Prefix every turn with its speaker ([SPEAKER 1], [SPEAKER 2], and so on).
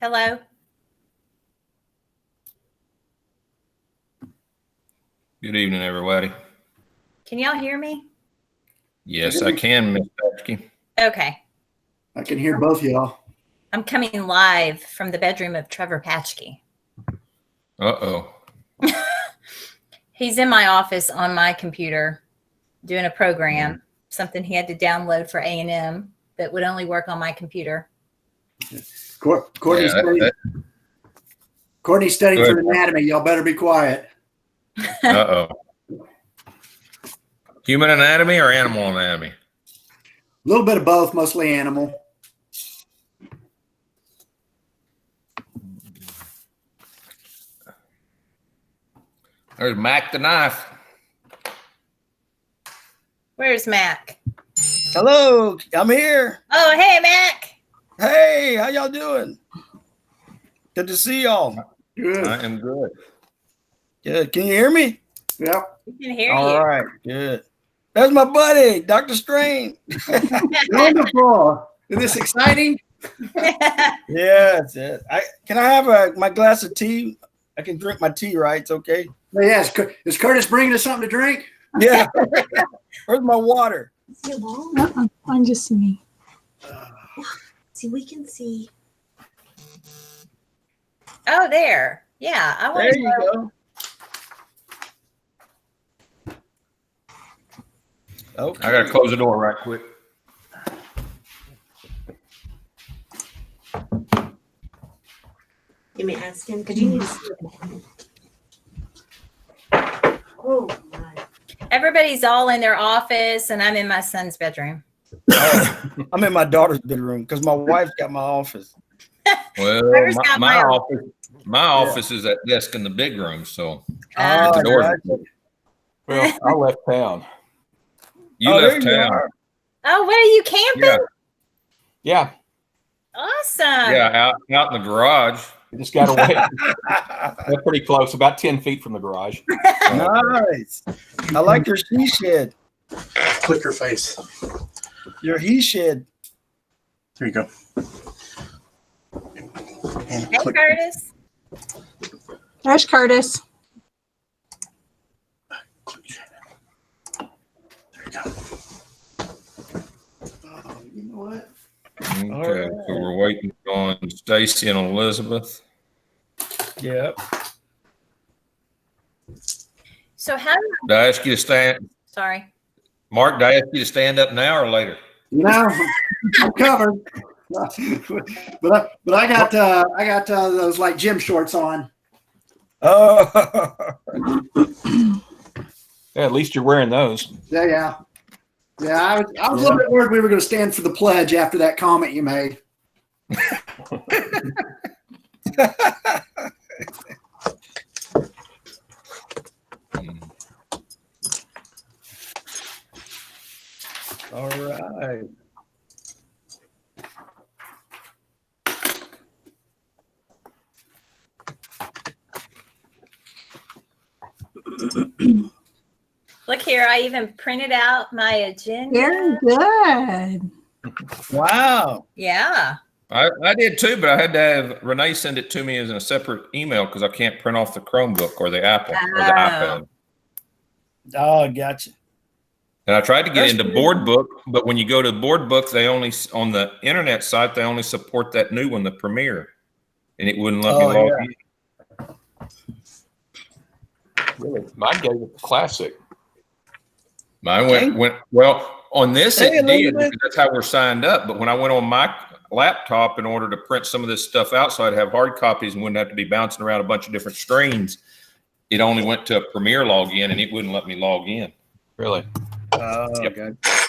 [SPEAKER 1] Hello?
[SPEAKER 2] Good evening, everybody.
[SPEAKER 1] Can y'all hear me?
[SPEAKER 2] Yes, I can, Ms. Paskey.
[SPEAKER 1] Okay.
[SPEAKER 3] I can hear both y'all.
[SPEAKER 1] I'm coming live from the bedroom of Trevor Patchke.
[SPEAKER 2] Uh-oh.
[SPEAKER 1] He's in my office on my computer doing a program, something he had to download for A&M that would only work on my computer.
[SPEAKER 3] Cour- Courtney,
[SPEAKER 2] Yeah,
[SPEAKER 3] studied,
[SPEAKER 2] that-
[SPEAKER 3] Courtney studied
[SPEAKER 2] Go
[SPEAKER 3] for
[SPEAKER 2] ahead.
[SPEAKER 3] anatomy. Y'all better be quiet.
[SPEAKER 2] that- Uh-oh. Human anatomy or animal anatomy?
[SPEAKER 3] A little bit of both, mostly animal.
[SPEAKER 2] There's Mac the knife.
[SPEAKER 1] Where's Mac?
[SPEAKER 4] Hello, I'm here.
[SPEAKER 1] Oh, hey, Mac.
[SPEAKER 4] Hey, how y'all doing? Good to see y'all.
[SPEAKER 3] Good.
[SPEAKER 2] I am good.
[SPEAKER 4] Good. Can you hear me?
[SPEAKER 3] Yep.
[SPEAKER 1] We can hear
[SPEAKER 4] All right. Good. There's my buddy, Doctor Strange.
[SPEAKER 1] you.
[SPEAKER 3] Wonderful. Is this exciting?
[SPEAKER 4] Yes, yes. I can I have a, my glass of tea? I can drink my tea, right? It's okay.
[SPEAKER 3] Yes. Cur- Is Curtis bringing us something to drink?
[SPEAKER 4] Yeah. Where's my water?
[SPEAKER 5] Uh-uh, on just me.
[SPEAKER 6] See, we can see.
[SPEAKER 1] oh, there. Yeah, I want
[SPEAKER 4] There
[SPEAKER 1] to
[SPEAKER 4] you
[SPEAKER 1] know.
[SPEAKER 4] go. Okay.
[SPEAKER 2] I gotta close the door right quick.
[SPEAKER 6] Let me ask him because you
[SPEAKER 5] Mm.
[SPEAKER 6] need to see it. Oh my!
[SPEAKER 1] Everybody's all in their office and I'm in my son's bedroom.
[SPEAKER 4] I'm in my daughter's bedroom because my wife's got my office.
[SPEAKER 2] Well,
[SPEAKER 1] Trevor's
[SPEAKER 2] my,
[SPEAKER 1] got
[SPEAKER 2] my
[SPEAKER 1] my-
[SPEAKER 2] office, my office is that desk in the big room, so
[SPEAKER 1] Uh,
[SPEAKER 2] the
[SPEAKER 4] Oh,
[SPEAKER 2] door's
[SPEAKER 4] gotcha.
[SPEAKER 7] Well, I left town.
[SPEAKER 2] you
[SPEAKER 4] Oh, there
[SPEAKER 2] left
[SPEAKER 4] you
[SPEAKER 2] town.
[SPEAKER 4] are.
[SPEAKER 1] oh, what are you camping?
[SPEAKER 2] Yeah,
[SPEAKER 7] Yeah,
[SPEAKER 1] Awesome.
[SPEAKER 2] yeah, out, out in the garage.
[SPEAKER 7] I just got away. They're pretty close, about 10 feet from the garage.
[SPEAKER 4] nice. I like your she shed,
[SPEAKER 8] click your face.
[SPEAKER 4] your he shed.
[SPEAKER 8] There you go. And
[SPEAKER 1] Hey,
[SPEAKER 8] click.
[SPEAKER 1] Curtis.
[SPEAKER 5] Ash Curtis.
[SPEAKER 8] click. There you go.
[SPEAKER 3] Oh, you know what?
[SPEAKER 2] Okay,
[SPEAKER 4] All
[SPEAKER 2] so we're waiting on Stacy and Elizabeth.
[SPEAKER 4] Yep.
[SPEAKER 1] So how
[SPEAKER 2] Did I ask you to stand,
[SPEAKER 1] sorry.
[SPEAKER 2] Mark, did I ask you to stand up now or later?
[SPEAKER 3] You know, I'm covered. but I, but I got uh, I got uh, those like gym shorts on.
[SPEAKER 4] Oh,
[SPEAKER 7] Yeah, at least you're wearing those.
[SPEAKER 3] Yeah, yeah, yeah. I was, I was a little bit worried we were going to stand for the pledge after that comment you made.
[SPEAKER 4] all right.
[SPEAKER 1] Look here, I even printed out my agenda.
[SPEAKER 5] Very good.
[SPEAKER 4] Wow.
[SPEAKER 1] Yeah.
[SPEAKER 2] I, I did too, but I had to have Renee send it to me as in a separate email because I can't print off the Chromebook or the Apple or the
[SPEAKER 1] Oh.
[SPEAKER 2] iPad.
[SPEAKER 4] Oh, gotcha.
[SPEAKER 2] And I tried to get
[SPEAKER 4] That's
[SPEAKER 2] into
[SPEAKER 4] good.
[SPEAKER 2] Board Book, but when you go to Board Book, they only s- on the internet site they only support that new one, the Premiere, and it wouldn't let
[SPEAKER 4] Oh,
[SPEAKER 2] me log
[SPEAKER 4] yeah.
[SPEAKER 2] in.
[SPEAKER 7] Really? Mine gave it the classic.
[SPEAKER 2] Mine went
[SPEAKER 4] Dang.
[SPEAKER 2] went well on this.
[SPEAKER 4] Hey,
[SPEAKER 2] it did
[SPEAKER 4] Elizabeth.
[SPEAKER 2] because that's how we're signed up. But when I went on my laptop in order to print some of this stuff out, so I'd have hard copies and wouldn't have to be bouncing around a bunch of different screens. It only went to a Premiere login, and it wouldn't let me log in.
[SPEAKER 7] Really?
[SPEAKER 4] Oh,
[SPEAKER 2] Yep.
[SPEAKER 4] gotcha.